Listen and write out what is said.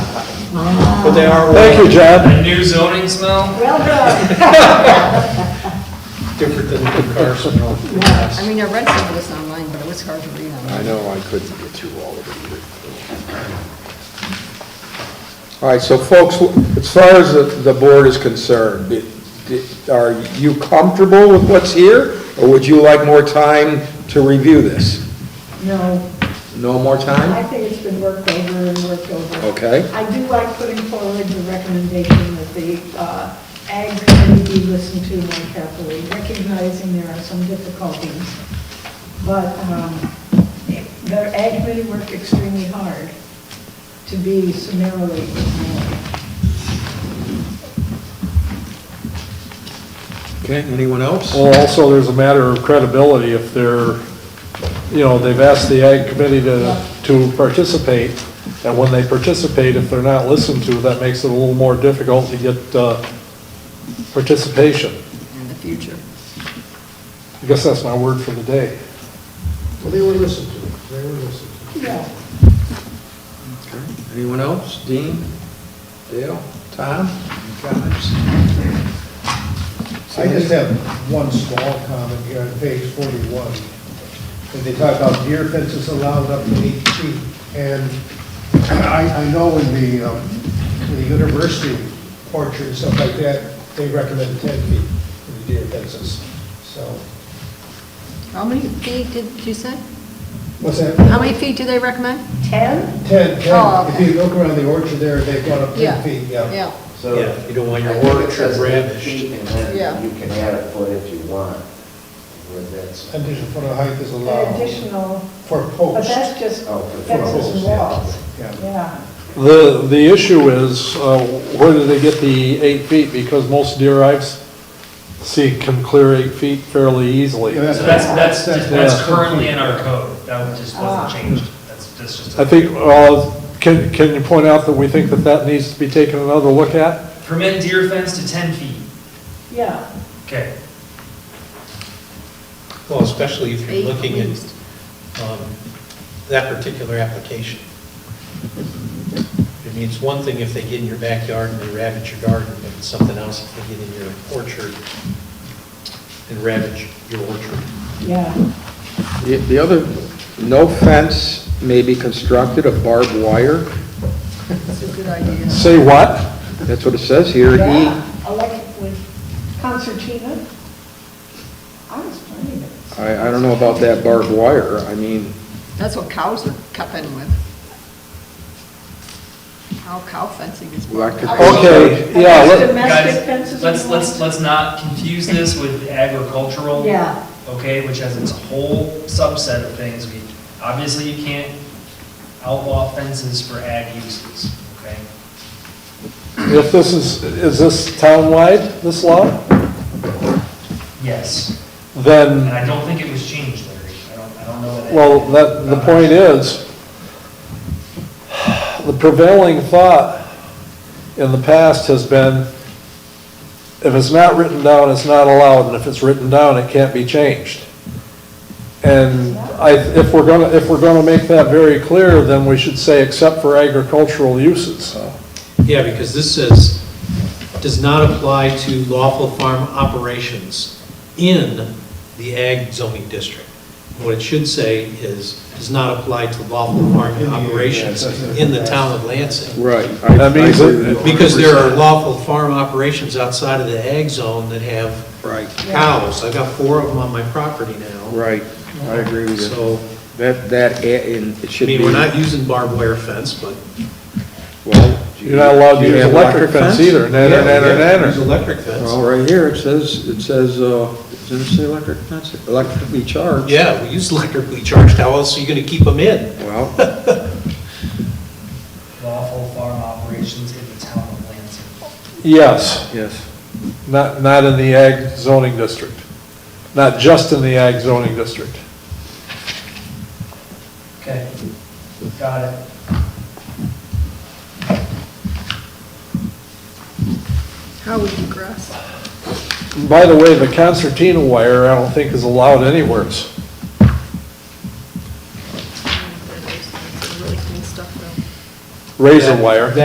but they are. Thank you, John. The new zoning smell? Well, good. Different than the Carson or Yeah, I mean, I read some of this online, but it was hard to read online. I know I couldn't get through all of it either. All right, so folks, as far as the, the board is concerned, it- it- are you comfortable with what's here? Or would you like more time to review this? No, No more I time? think it's been worked over and worked over. Okay. I do like putting forward the recommendation that the uh, Ag Committee be listened to more carefully, recognizing there are some difficulties. But um, the Ag Committee worked extremely hard to be summarily ignored. Okay, anyone else? Well, also, there's a matter of credibility if they're, you know, they've asked the ag committee to, to participate, and when they participate, if they're not listened to, that makes it a little more difficult to get uh, participation. In the future. I guess that's my word for the day. Well, they were listened to, they were listened to. Yeah. Okay. Anyone else? Dean? Dale? Tom? Guys? I just have one small comment here on page 41. When they talk about deer fences allowed up to eight feet, and I, I know in the, um, the university orchard and stuff like that, they recommend 10 feet for the deer fences, so, How many feet did you say? what's that? How many feet do they recommend? 10? 10, 10, Oh, if okay. you look around the orchard there, they've gone up 10 feet, Yeah, So. Yeah, you don't want your I think it orchard says eight ravished. feet, And Yeah. then you can add a foot if you want, where that's. Additional foot of height is allowed Additional, for but posts. that's just Oh, for fences and posts, yeah. walls. Yeah. Yeah. The, the issue is, uh, where do they get the eight feet? Because most deer I've s- see can clear eight feet fairly easily. Yeah, So that's, that's, that's that's- currently in our code, that just Ah. wasn't changed, that's, that's just. I think, uh, can, can you point out that we think that that needs to be taken another look at? Permit deer fence to ten feet, Yeah. okay. Well, especially if Eight you're looking at least. um, that particular application. I mean, it's one thing if they get in your backyard and they ravage your garden, but it's something else if they get in your orchard and ravage your orchard. Yeah, The the other, no fence may be constructed of barbed wire. it's a good idea. Say what? That's what it says here. E, yeah, I like it with concertina. I was playing it. I, I don't know about that barbed wire, I mean, That's what cows are cupping with. How cow fencing is. Electric- Okay, yeah, Just let- Domestic Guys, fences. let's, and let's, walls? let's not confuse this with agricultural. Yeah. Okay, which has its whole subset of things. We, obviously you can't outlaw fences for ag uses, okay? if this is, is this townwide, this law? Yes, and Then, I don't think it was changed, Larry. I don't, I don't know that. well, that, the point is, the prevailing thought in the past has been, if it's not written down, it's not allowed, and if it's written down, it can't be changed. And I, if we're gonna, if we're gonna make that very clear, then we should say except for agricultural uses. Yeah, because this says, does not apply to lawful farm operations in the ag zoning district. What it should say is, does not apply to lawful farm In the- operations in the town of Lansing. right. That means it- Because there are lawful farm operations outside of the ag zone that have Right, cows. I've got four of them on my property now. right, I agree with you. So, That, that, a- and it I should be. mean, we're not using barbed wire fence, but Well, You're not allowed to you use have electric fence either, nanner, Yeah, we nanner, have to nanner. Use electric fence. Well, right here, it says, it says, uh, does it say electric fence? Electrically charged. Yeah, we use electrically charged. How else are you gonna keep them in? Well, Lawful farm operations in the town of Lansing. Yes, yes. not, not in the ag zoning district, not just in the ag zoning district. Okay, got it. How would you grass? By the way, the concertina wire, I don't think is allowed anywheres. Really clean stuff though. Razor wire.